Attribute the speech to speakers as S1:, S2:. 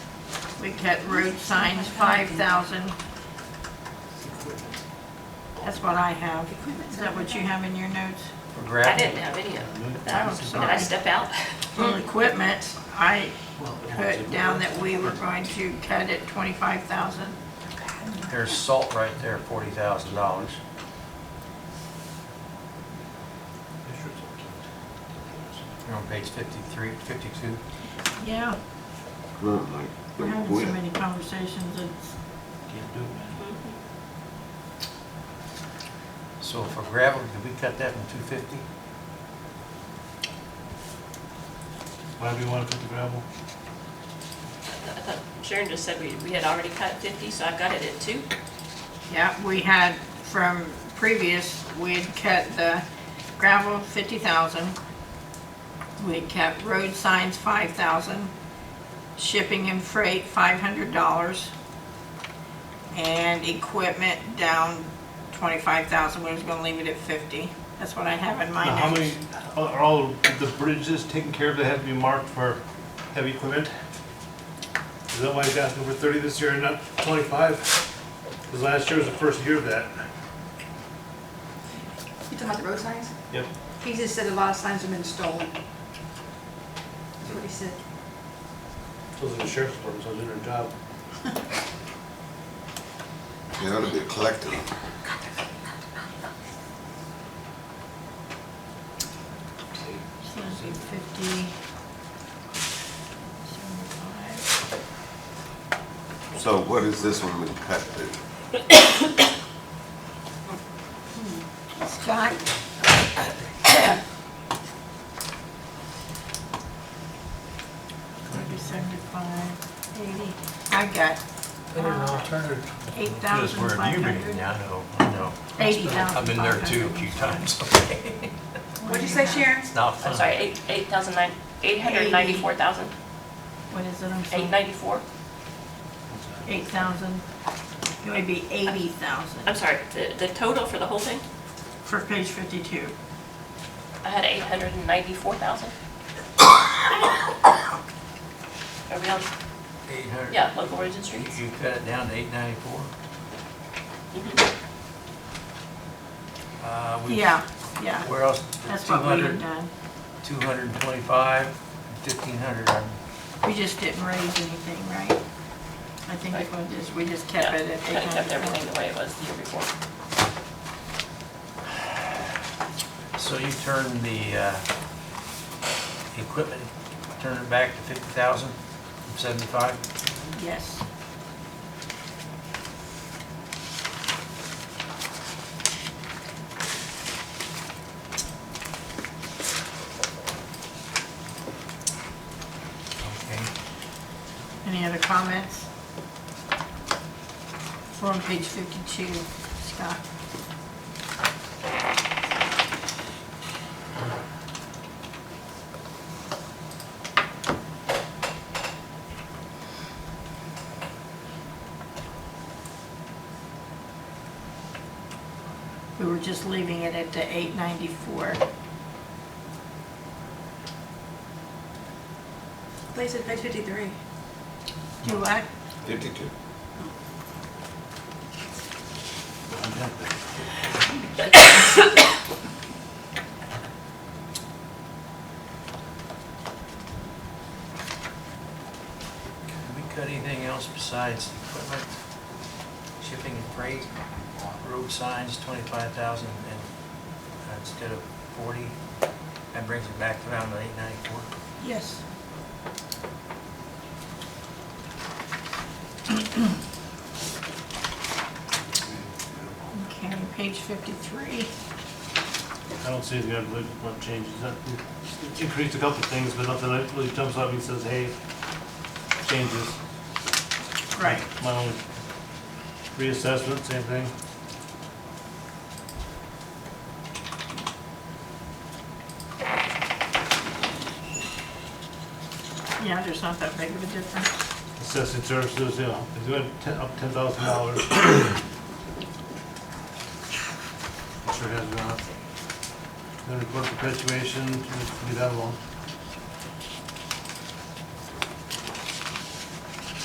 S1: We cut road signs, five thousand. That's what I have. Is that what you have in your notes?
S2: For
S3: I
S2: gravel?
S3: didn't have any of
S1: Oh,
S3: that. Did I
S1: sorry.
S3: step out?
S1: Well, equipment, I put down that we were going to cut it twenty-five thousand.
S2: There's salt right there, forty thousand dollars. You're on page fifty-three, fifty-two.
S1: Yeah,
S4: Not like,
S1: we're
S4: like
S1: having so
S4: when.
S1: many conversations, it's,
S2: So for gravel, did we cut that from two fifty?
S5: Why do you want to put the gravel?
S3: I thought Sharon just said we, we had already cut 50, so I've got it at two.
S1: yeah, we had from previous, we had cut the gravel fifty thousand. We had kept road signs five thousand, shipping and freight five hundred dollars. And equipment down twenty-five thousand, we was gonna leave it at fifty. That's what I have in my
S5: Now,
S1: notes.
S5: How many, are all the bridges taken care of that have to be marked for heavy equipment? Is that why you got over 30 this year and not 25? Because last year was the first year of that.
S6: You talking about the road signs?
S5: Yep.
S6: He just said a lot of signs have been stolen. That's what he said.
S5: So the sheriff's department, so they're doing their job.
S4: They ought to be collecting them.
S1: So it'd be fifty, seventy-five.
S4: So what is this one been cut to?
S1: Scott? Maybe seventy-five, eighty. I got eight
S2: Just
S1: thousand
S2: where
S1: five
S2: you been,
S1: hundred.
S2: yeah, I know, I know.
S1: Eighty thousand.
S2: I've been there too a few times.
S6: What'd you say, Sharon?
S2: It's not
S3: I'm
S2: fun.
S3: sorry, eight, eight thousand nine, eight hundred ninety-four thousand,
S1: What is it, I'm
S3: eight
S1: sorry?
S3: ninety-four.
S1: Eight thousand. It would be eighty thousand
S3: I'm sorry, the, the total for the whole thing,
S1: for page fifty-two.
S3: I had eight hundred and ninety-four thousand. Are we on,
S2: Eight hundred.
S3: yeah, local origin
S2: You
S3: streets?
S2: you cut it down to eight ninety-four?
S3: Mhm.
S2: Uh, we-
S1: Yeah, yeah,
S2: Where else?
S1: that's what we had
S2: 200,
S1: done.
S2: 225, 1500. I'm-
S1: We just didn't raise anything, right? I think it was just, we just kept
S3: Yeah,
S1: it at eight
S3: Kinda
S1: hundred.
S3: kept everything the way it was the year before.
S2: So you turn the uh, equipment, turn it back to 50,000 from 75?
S1: Yes.
S2: Okay.
S1: Any other comments? We're on page 52, Scott. We were just leaving it at the 894.
S6: They said page fifty-three.
S1: Do what?
S4: Fifty-two.
S2: Did we cut anything else besides equipment, shipping and freight, road signs, 25,000 and uh, instead of 40? That brings it back around to 894.
S1: Yes. Okay, page 53.
S5: I don't see any other much changes. That- it Increased a couple of things, but nothing that really jumps out and says, hey, changes.
S1: Right.
S5: My only reassessment, same thing.
S1: Yeah, there's not that big of a difference.
S5: Assessing services, you know, it's going ten- up ten thousand dollars. uh, Sure has gone up. Then report perpetuation, leave that alone.